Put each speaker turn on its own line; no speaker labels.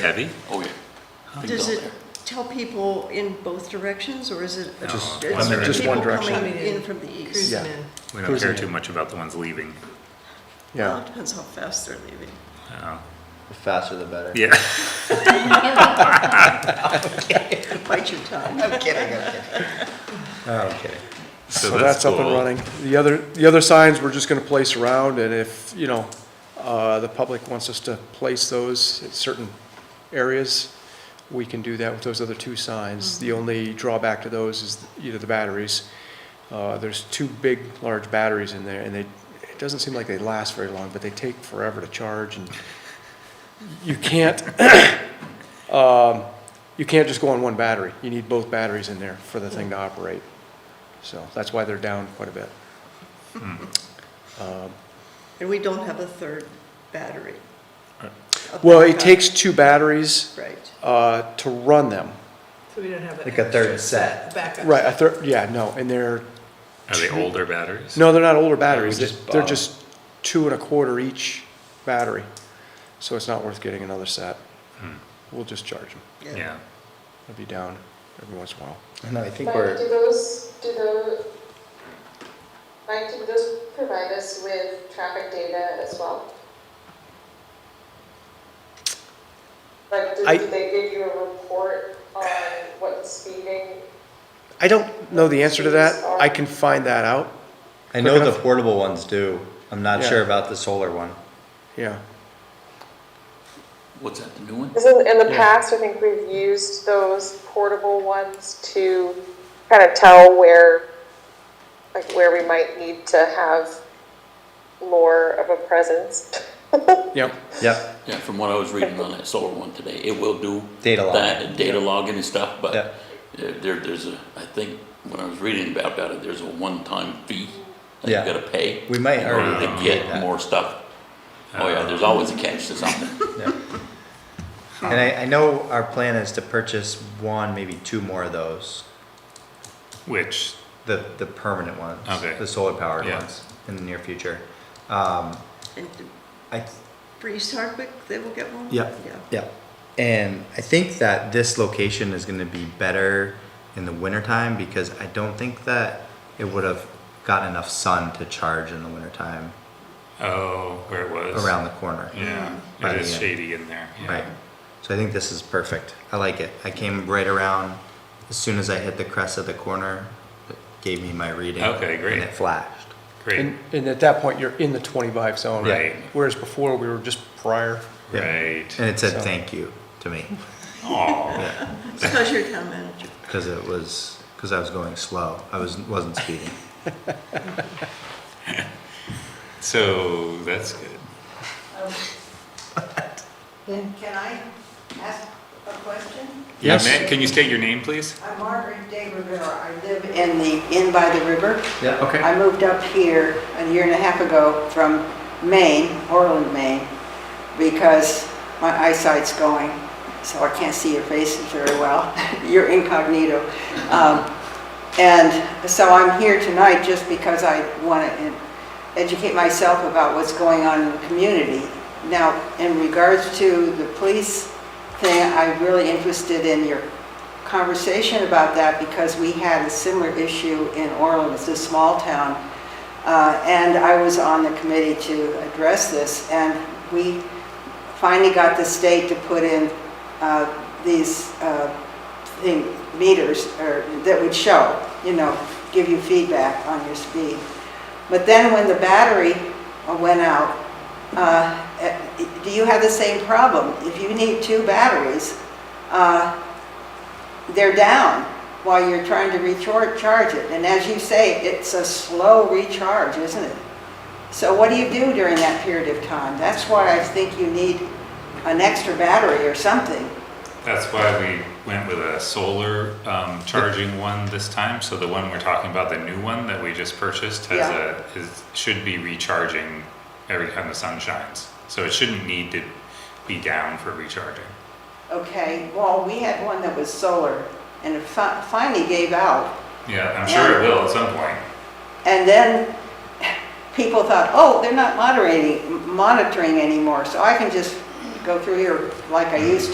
Heavy?
Oh, yeah. Big
Does
bell
it
there.
tell people in both directions, or is it?
Just
it's
one direction.
Just one
people
direction.
Coming in from the east?
Yeah.
We don't care
Cruising.
too much about the ones leaving.
Well, it
Yeah,
depends how fast they're leaving.
Oh,
The faster the better.
Yeah,
Bite your tongue.
I'm kidding, I'm kidding. I'm kidding.
so
so that's up and
cool.
running. The other, the other signs, we're just gonna place around, and if, you know, uh, the public wants us to place those at certain areas, we can do that with those other two signs. The only drawback to those is either the batteries. Uh, There's two big, large batteries in there, and they, it doesn't seem like they last very long, but they take forever to charge, and you can't, um, you can't just go on one battery. You need both batteries in there for the thing to operate. So that's why they're down quite a bit.
And we don't have a third battery. A
Well,
backup.
it takes two batteries
Right.
uh, to run them.
So we don't have an
Like a third set.
backup.
Right, a third, yeah, no, and they're,
Are they older batteries?
no, they're not older batteries.
we just
They're
bought 'em.
just two and a quarter each battery. So it's not worth getting another set. We'll just charge them.
Yeah,
They'll be down every once in a while.
No, I think
But do
we're,
those, do those, Mike, do those provide us with traffic data as well? Like, do
I-
do they give you a report on what the speeding?
I don't know the answer to that. I can find that out.
I know the
enough.
portable ones do. I'm not
Yeah.
sure about the solar one.
Yeah.
What's that, the new one?
Because in, in the
Yeah.
past, I think we've used those portable ones to kind of tell where, like, where we might need to have more of a presence.
Yep.
Yep,
Yeah, from what I was reading on that solar one today, it will do.
Data log.
that, Data logging and stuff, but
Yeah.
there, there- there's a, I think, when I was reading about that, there's a one-time fee that you
Yeah.
gotta pay.
We might
in order
already
To
pay
get
that.
more stuff. Oh yeah, there's always a catch to something.
yep. And I, I know our plan is to purchase one, maybe two more of those,
which,
the, the permanent ones.
Okay.
The solar powered
Yeah.
ones in the near future. Um,
And
I,
for East Hardwick, they will get one?
Yep.
Yeah.
Yeah, and I think that this location is gonna be better in the wintertime because I don't think that it would have gotten enough sun to charge in the wintertime
oh, where it was.
around the corner.
Mm-hmm.
Yeah,
Right,
it is
yeah.
shady in there. yeah.
Right, so I think this is perfect. I like it. I came right around, as soon as I hit the crest of the corner, it gave me my reading.
Okay, great.
And it flashed.
Great,
And, and at that point, you're in the 25 zone.
Right.
Whereas before, we were just prior.
Yeah. And
right.
it said
So-
thank you to me,
Aw,
Because you're town manager.
because it was, because I was going slow. I was, wasn't speeding.
so that's good.
Can can I ask a question?
Yeah,
Yes.
ma- Can you state your name, please?
I'm Margaret Day Rivera. I live in the Inn by the River.
Yeah, okay.
I moved up here a year and a half ago from Maine, Orland, Maine, because my eyesight's going, so I can't see your faces very well. You're incognito. Um, And so I'm here tonight just because I want to educate myself about what's going on in the community. Now, in regards to the police thing, I'm really interested in your conversation about that because we had a similar issue in Orland, it's a small town. uh, And I was on the committee to address this, and we finally got the state to put in uh, these uh, thing- meters or- that would show, you know, give you feedback on your speed. But then when the battery uh, went out, uh, eh, do you have the same problem? If you need two batteries, uh, they're down while you're trying to recharge it. And as you say, it's a slow recharge, isn't it? So what do you do during that period of time? That's why I think you need an extra battery or something.
That's why we went with a solar um, charging one this time. So the one we're talking about, the new one that we just purchased, has
Yeah.
a is should be recharging every time the sun shines. So it shouldn't need to be down for recharging.
Okay, well, we had one that was solar and it fi- finally gave out.
Yeah, I'm sure it
Yeah.
will at some point.
And then people thought, oh, they're not moderating, monitoring anymore, so I can just go through here like I used to.